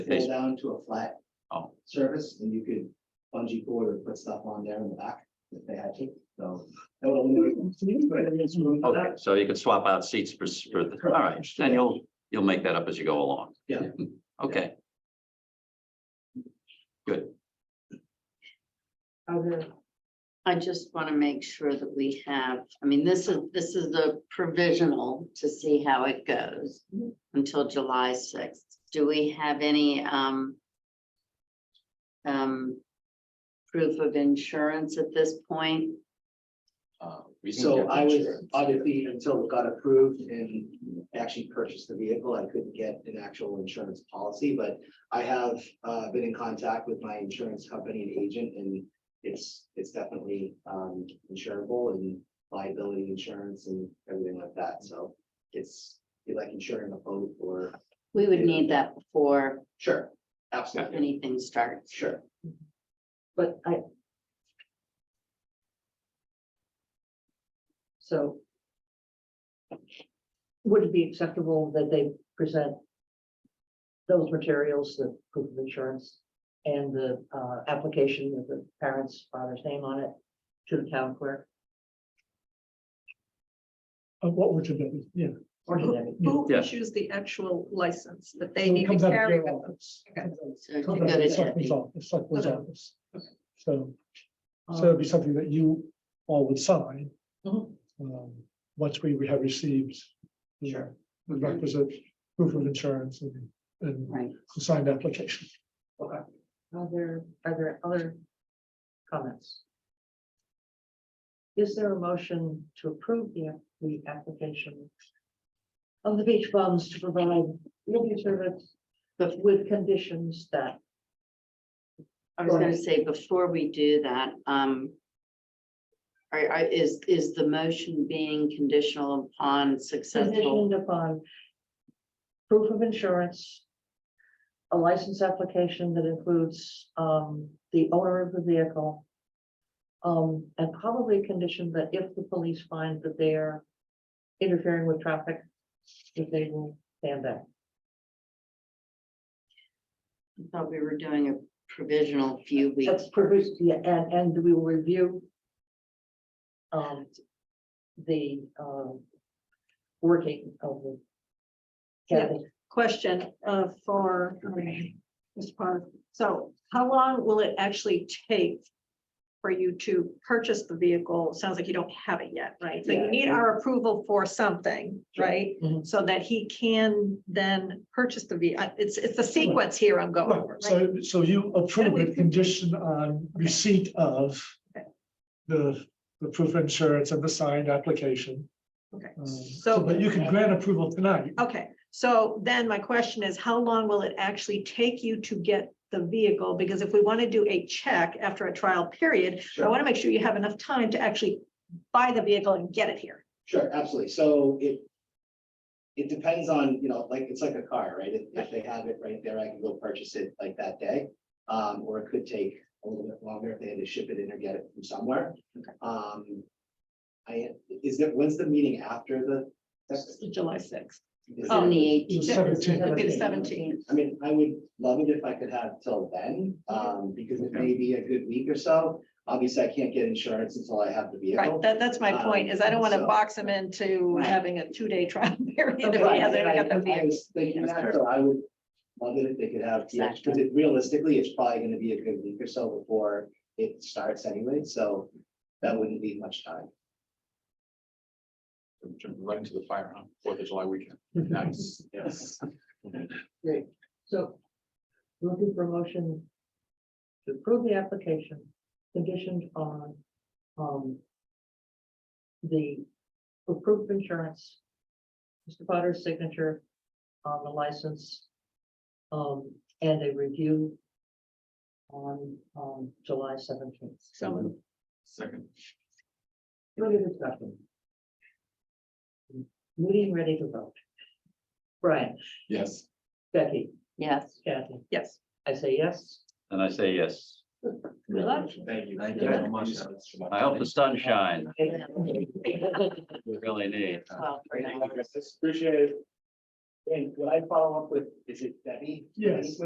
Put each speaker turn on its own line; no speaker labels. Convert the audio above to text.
pull down to a flat.
Oh.
Service and you could bungee cord or put stuff on there in the back if they had to, so. that would eliminate- but there's room for
Okay,
that.
so you can swap out seats for, s- for, the- all right, then you'll, you'll make that up as you go along.
Yeah.
Okay,
Are there? I just want to make sure that we have, I mean, this is, this is a provisional to see how it goes until July sixth. Do we have any, um, um, proof of insurance at this point?
Uh, we can
So
get
I was,
insurance.
obviously, until it got approved and actually purchased the vehicle, I couldn't get an actual insurance policy, but I have uh been in contact with my insurance company and agent and it's, it's definitely um insurable and liability insurance and everything like that, so it's, you like insuring a boat or,
We would need that before
sure, absolutely,
anything starts.
sure.
But I. So. Would it be acceptable that they present? Those materials, the proof of insurance and the uh application with the parents' father's name on it to the town clerk?
Of what we're to do, yeah.
Or to them?
Who
Yeah.
issues the actual license that they
So it
need to
comes out of
carry
their
with them?
office.
Okay.
So to
Comes
go
out of
to
the selectman's
Debbie.
office, selectman's
Okay.
office. So,
Uh-huh.
so it'd be something that you all would sign,
Mhm.
um, once we we have received. you know, The
Mm-hmm.
requisite proof of insurance and, and
Right.
the signed application.
Are there, are there other comments? Is there a motion to approve the, the application of the beach bums to provide media service, but with conditions that
I was gonna say, before we do that, um. Are, are- is, is the motion being conditional upon successful?
conditioned upon proof of insurance, a license application that includes, um, the owner of the vehicle, um, and probably conditioned that if the police find that they are interfering with traffic, that they will stand back.
I thought we were doing a provisional few weeks.
That's produced, yeah, and, and we will review um, the, um, working of the
Yeah.
Kathy,
Question uh, for um, Mr. Park. So how long will it actually take for you to purchase the vehicle? Sounds like you don't have it yet, right? So you
Yeah.
need our approval for something,
Sure.
right?
Mhm.
So that he can then purchase the vehicle. It's, it's the sequence here I'm going.
Right,
over, right?
so, so you approve it condition on receipt of
Okay.
the, the proof of insurance and the signed application.
Okay.
Um, So,
So-
but you can grant approval tonight.
Okay, so then my question is, how long will it actually take you to get the vehicle? Because if we want to do a check after a trial period, I
Sure.
want to make sure you have enough time to actually buy the vehicle and get it here.
Sure, absolutely. So it. It depends on, you know, like, it's like a car, right? If, if they have it right there, I can go purchase it like that day. Um, or it could take a little bit longer if they had to ship it in or get it from somewhere.
Okay.
Um. I, is that, when's the meeting after the? that's-
July sixth.
is
On
it-
the
It was
eighteenth.
seventeen.
It'd be the seventeenth.
I mean, I would love it if I could have till then, um, because it may be a good week or so. Obviously, I can't get insurance until I have the
Right,
vehicle.
that, that's
uh,
my point, is I don't want to box him into having a two-day trial period. if he
Right,
hasn't
and I-
got the
I
vehicle.
was thinking that, so I would love it if they could have, because
Exactly.
it realistically, it's probably gonna be a good week or so before it starts anyway, so that wouldn't be much time.
Right into the fire, huh? Fourth of July weekend. Nice. Yes.
so looking for a motion to approve the application conditioned on, um, the approved insurance, Mr. Potter's signature on the license, um, and a review on, um, July seventeenth.
So,
Second.
Further discussion? Meeting ready to vote. Brian,
Yes.
Becky,
Yes,
Kathy,
yes,
I say yes.
And I say yes.
Good luck.
Thank you.
Thank you very much. I hope the sun shines. We really need.
well, for now.
Appreciate it. And would I follow up with, is it Debbie?
Yes.